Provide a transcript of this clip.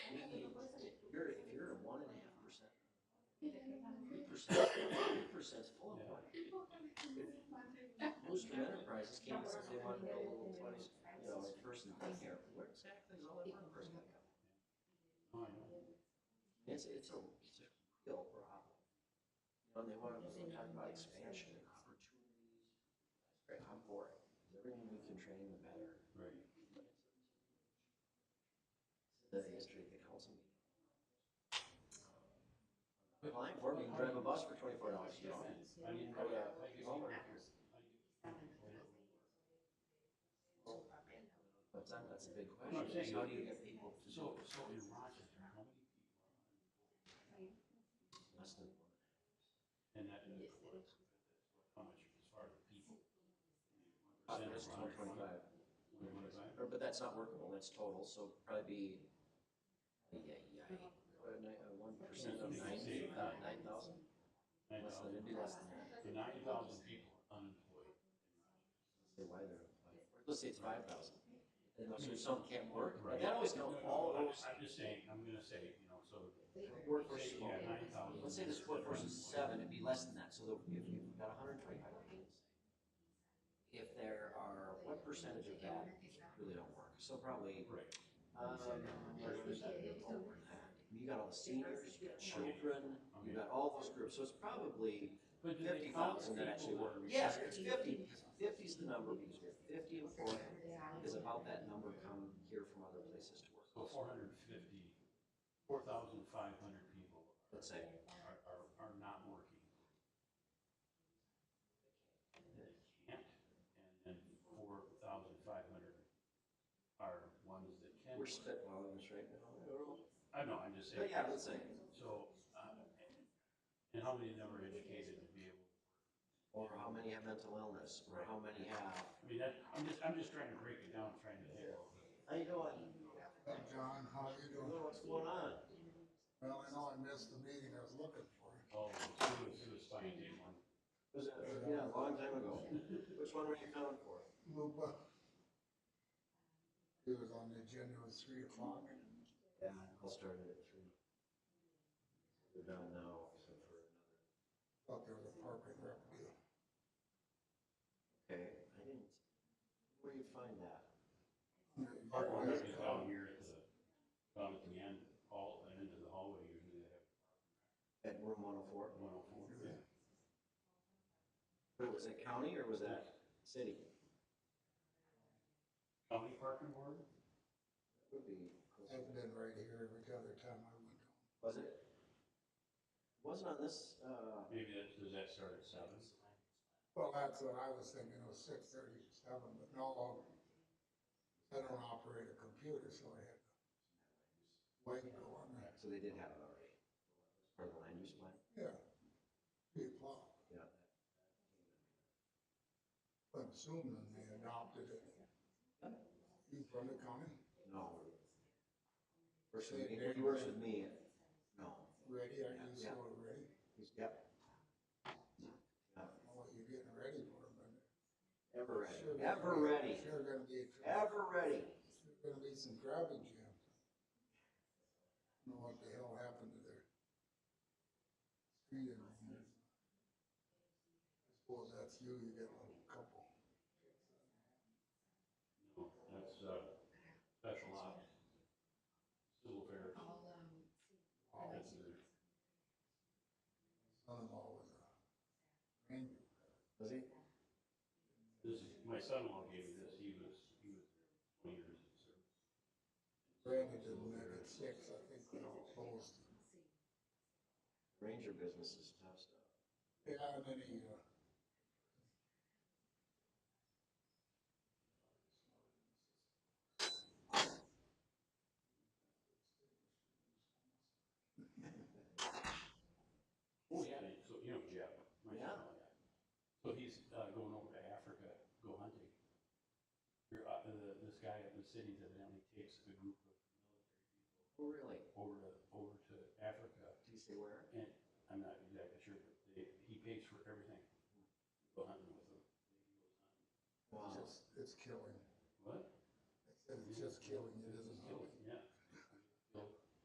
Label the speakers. Speaker 1: percent, eight percent's full of money. Most of enterprises came and said they wanted to build a little place, you know, a person in here, where exactly is all that one person gonna go? It's, it's a, it's a real problem. You know, they want to talk about expansion and opportunities. Right, I'm for it, the more we can train, the better.
Speaker 2: Right.
Speaker 1: The history of the council meeting. Applying for, it, we can drive a bus for twenty-four dollars, you know? Oh, yeah. But that, that's a big
Speaker 2: I'm
Speaker 1: question, is
Speaker 2: saying-
Speaker 1: how do you get people to do
Speaker 2: So, so in Rochester, how many people
Speaker 1: less than one?
Speaker 2: are in that, that's what it's- how much as far as people?
Speaker 1: Uh, that's
Speaker 2: Percent of Rochester,
Speaker 1: 125.
Speaker 2: twenty-five?
Speaker 1: Or, but that's not workable, that's total, so probably be, yeah, yeah, one percent of nine, uh, nine thousand,
Speaker 2: Nine
Speaker 1: less than, it'd
Speaker 2: thousand,
Speaker 1: be less than that.
Speaker 2: the nine thousand people are unemployed.
Speaker 1: Say why they're applying for it. Let's say it's five thousand, and those are some can't work, but that always counts all
Speaker 2: I'm-
Speaker 1: those,
Speaker 2: I'm just saying, I'm gonna say, you know, so.
Speaker 1: Workforce
Speaker 2: say you got 9,000
Speaker 1: let's say this workforce is
Speaker 2: that are
Speaker 1: seven, it'd be less than that, so the- if you've got hundred and twenty-five applicants. If there are, what percentage of that really don't work, so probably,
Speaker 2: unemployed. Right,
Speaker 1: um, over that. You got all the seniors, you got children, you
Speaker 2: okay.
Speaker 1: got all those groups, so it's probably
Speaker 2: But do they
Speaker 1: fifty
Speaker 2: count
Speaker 1: thousand that
Speaker 2: people
Speaker 1: actually
Speaker 2: are
Speaker 1: work. Yes, it's fifty, fifty's the number, because we have fifty employees, is about that number come here from other places to
Speaker 2: So
Speaker 1: work.
Speaker 2: four hundred and fifty, four thousand five hundred people
Speaker 1: Let's say,
Speaker 2: are, are, are not working. They can't, and then four thousand five hundred are ones that can.
Speaker 1: we're
Speaker 2: work.
Speaker 1: spitballing this right now, I don't know.
Speaker 2: I know, I'm just
Speaker 1: but
Speaker 2: saying,
Speaker 1: yeah, let's say,
Speaker 2: so, uh, and how many of them are educated to be able,
Speaker 1: or how many have mental illness, or how many have.
Speaker 2: I mean, that, I'm just, I'm just trying to break it down, trying to narrow. it.
Speaker 1: How you doing?
Speaker 3: Hey, John, how
Speaker 1: I
Speaker 3: you
Speaker 1: don't
Speaker 3: doing?
Speaker 1: know what's going on.
Speaker 3: Well, I know I missed the meeting I was looking for. you.
Speaker 2: Oh, it was, it was fine, day one.
Speaker 1: It was, uh, yeah, a long time ago. Which one were you coming for?
Speaker 3: Lupa. He was on the agenda at three o'clock.
Speaker 1: Yeah, I'll start it at three. We're done now, except for another.
Speaker 3: Thought there was a park and rec deal.
Speaker 1: Okay, I didn't, where you find that?
Speaker 2: Park
Speaker 3: Park
Speaker 2: one
Speaker 3: and
Speaker 2: is
Speaker 3: Rec Club.
Speaker 2: down here at the, down at the end, all, and into the hallway, usually they have
Speaker 1: At room one oh four?
Speaker 2: one oh four.
Speaker 1: But was it county or was that city?
Speaker 2: County parking board?
Speaker 1: Would be.
Speaker 3: I've been right here every other time I went.
Speaker 1: Was it? Wasn't on this, uh,
Speaker 2: Maybe that, does that start at seven?
Speaker 3: Well, that's what I was thinking, it was six thirty to seven, but no, I'll- I don't operate a computer, so I had to wait and go on that.
Speaker 1: so they did have it already. Or the land use plan?
Speaker 3: Yeah. Three o'clock.
Speaker 1: Yeah.
Speaker 3: I'm assuming they adopted it. You from the county,
Speaker 1: No. Works with me, he works with me. No.
Speaker 3: ready, are you still ready?
Speaker 1: He's, yep.
Speaker 3: Well, you're getting ready for it, but.
Speaker 1: Ever
Speaker 3: sure
Speaker 1: ready,
Speaker 3: gonna
Speaker 1: ever
Speaker 3: be-
Speaker 1: ready,
Speaker 3: Sure gonna be, a tra-
Speaker 1: ever ready.
Speaker 3: sure gonna be some crowded jam. Know what the hell happened to their street and I suppose that's you, you get a little couple.
Speaker 2: No, that's, uh, special op. Civil affairs. That's their-
Speaker 3: Son-in-law was a ranger.
Speaker 1: Was he?
Speaker 2: This is, my son-in-law gave me this, he was, he was twenty years in service.
Speaker 3: Randy didn't make it six, I think they all opposed.
Speaker 1: Ranger business is tough stuff.
Speaker 3: Yeah, and then he, uh,
Speaker 2: Oh, yeah, they- so, you know, Jeff, my
Speaker 1: Yeah.
Speaker 2: son-in-law. So he's, uh, going over to Africa, go hunting. Here, uh, the, this guy up in the city evidently takes a group of
Speaker 1: Oh, really?
Speaker 2: over to, over to Africa.
Speaker 1: Did he say where?
Speaker 2: I'm not exactly sure, but they, he pays for everything. Go hunting with them.
Speaker 1: Wow.
Speaker 3: just, it's killing.
Speaker 2: What?